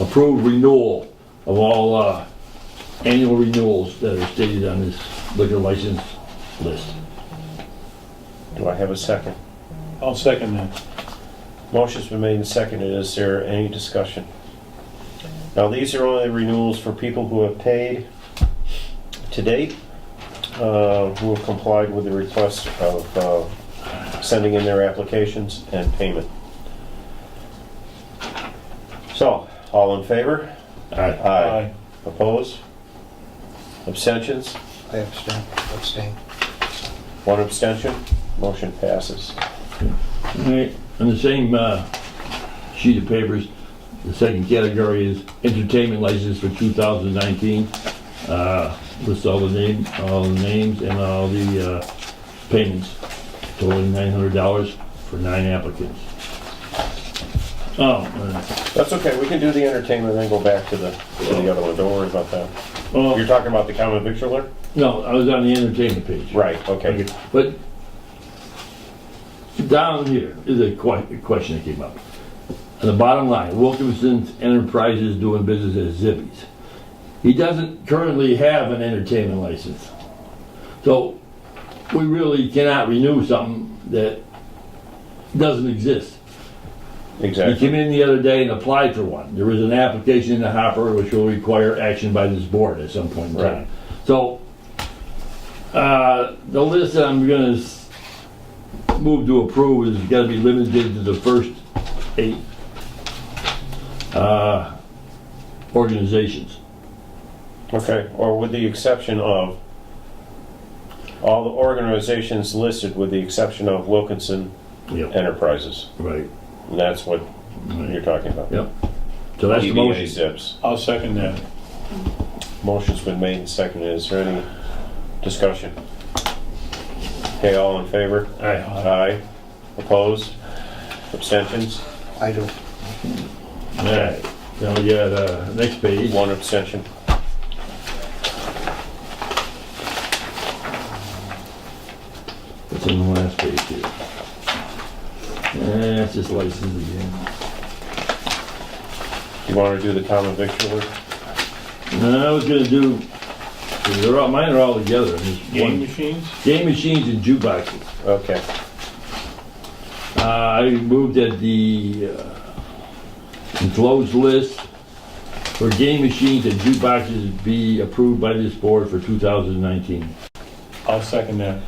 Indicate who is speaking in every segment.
Speaker 1: approved renewal of all uh, annual renewals that are stated on this liquor license list.
Speaker 2: Do I have a second?
Speaker 3: I'll second that.
Speaker 2: Motion's been made and seconded. Is there any discussion? Now, these are only renewals for people who have paid to date, uh, who have complied with the request of uh, sending in their applications and payment. So, all in favor?
Speaker 1: All right,
Speaker 2: Aye. Opposed? Abstentions?
Speaker 4: I abstain, abstain.
Speaker 2: One abstention? Motion passes.
Speaker 1: All right, on the same uh, sheet of papers, the second category is entertainment license for 2019. Uh, Lists all the name, all the names and all the uh, payments totaling $900 for nine applicants. Oh, uh,
Speaker 2: That's okay, we can do the entertainment and then go back to the, to the other one, don't worry about that.
Speaker 1: oh,
Speaker 2: You're talking about the common victualler?
Speaker 1: no, I was on the entertainment page.
Speaker 2: Right, okay.
Speaker 1: Okay, But down here is a que- a question that came up. On the bottom line, Wilkinson's Enterprises doing business as Zippies. He doesn't currently have an entertainment license. So we really cannot renew something that doesn't exist. He
Speaker 2: Exactly.
Speaker 1: came in the other day and applied for one. There is an application in the hopper which will require action by this board at some point in
Speaker 2: Right.
Speaker 1: time. So, uh, the list that I'm gonna s- move to approve is gotta be limited to the first eight, uh, organizations.
Speaker 2: Okay, or with the exception of, all the organizations listed with the exception of Wilkinson
Speaker 1: Yep,
Speaker 2: Enterprises.
Speaker 1: right.
Speaker 2: And that's what
Speaker 1: right.
Speaker 2: you're talking about.
Speaker 1: Yep. So that's the
Speaker 2: DBA
Speaker 1: motion.
Speaker 2: Zips.
Speaker 3: I'll second that.
Speaker 2: Motion's been made and seconded, is there any discussion? Okay, all in favor?
Speaker 1: All right.
Speaker 2: Aye. Opposed? Abstentions?
Speaker 4: I do.
Speaker 1: All right. Now, we got, uh, next page.
Speaker 2: One abstention.
Speaker 1: It's in the last page here. Eh, it's just license again.
Speaker 2: You want to do the common victualler?
Speaker 1: No, I was gonna do, they're all, mine are all together, and there's
Speaker 3: Game
Speaker 1: one,
Speaker 3: machines?
Speaker 1: game machines and jukeboxes.
Speaker 2: Okay.
Speaker 1: Uh, I moved that the, uh, enclosed list for game machines and jukeboxes be approved by this board for two thousand nineteen.
Speaker 3: I'll second that.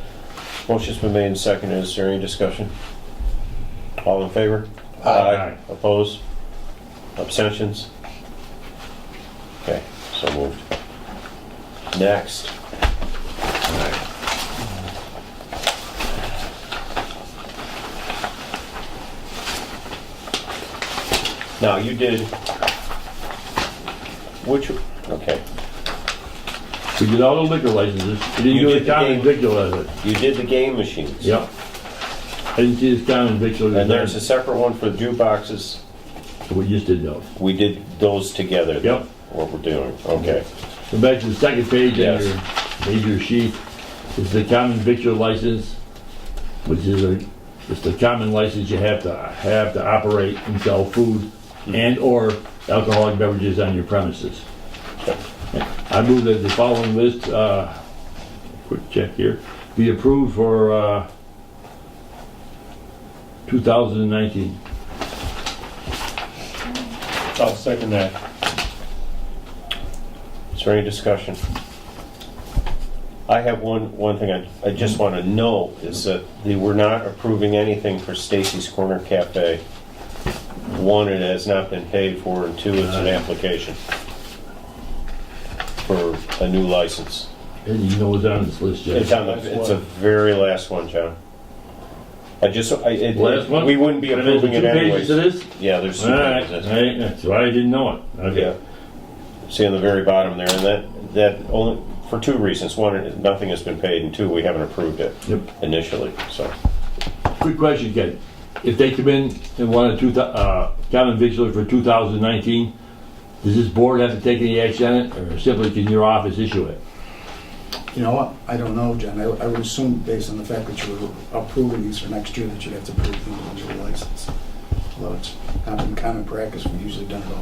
Speaker 2: Motion's been made and seconded. Is there any discussion? All in favor?
Speaker 1: Aye.
Speaker 2: Opposed? Abstentions? Okay, so moved. Next. Now, you did, which, okay,
Speaker 1: We did all the liquor licenses, we didn't
Speaker 2: You
Speaker 1: do
Speaker 2: did
Speaker 1: the
Speaker 2: the
Speaker 1: common
Speaker 2: game.
Speaker 1: victual license.
Speaker 2: you did the game machines.
Speaker 1: Yep. I didn't see this common victual.
Speaker 2: And there's a separate one for jukeboxes.
Speaker 1: We just did those.
Speaker 2: We did those together.
Speaker 1: Yep.
Speaker 2: What we're doing, okay.
Speaker 1: So back to the second page on
Speaker 2: Yes.
Speaker 1: your major sheet, is the common victual license, which is a, it's the common license you have to have to operate and sell food
Speaker 2: Mm-hmm.
Speaker 1: and/or alcoholic beverages on your premises. I move that the following list, uh, quick check here, be approved for, uh, 2019.
Speaker 3: I'll second that.
Speaker 2: Is there any discussion? I have one, one thing I, I just want to know is that they were not approving anything for Stacy's Corner Cafe. One, it has not been paid for, and two, it's an application for a new license.
Speaker 1: And you know what's on this list, Jeff?
Speaker 2: It's on the, it's a very last one, John. I just, I, it,
Speaker 1: Last one?
Speaker 2: we wouldn't be
Speaker 1: And there's
Speaker 2: approving it
Speaker 1: Two
Speaker 2: anyways.
Speaker 1: pages of this?
Speaker 2: Yeah, there's
Speaker 1: All
Speaker 2: two
Speaker 1: right,
Speaker 2: pages.
Speaker 1: all right, that's why I didn't know it. Okay.
Speaker 2: Yeah. See on the very bottom there, and that, that only, for two reasons. One, nothing has been paid, and two, we haven't approved it
Speaker 1: Yep.
Speaker 2: initially, so.
Speaker 1: Quick question, Ken. If they come in and want a two, thou- uh, common victular for 2019, does this board have to take any action on it, or simply can your office issue it?
Speaker 4: You know what? I don't know, John. I I would assume based on the fact that you were approving these for next year, that you'd have to approve the individual license. Although it's not been common practice, we usually done it all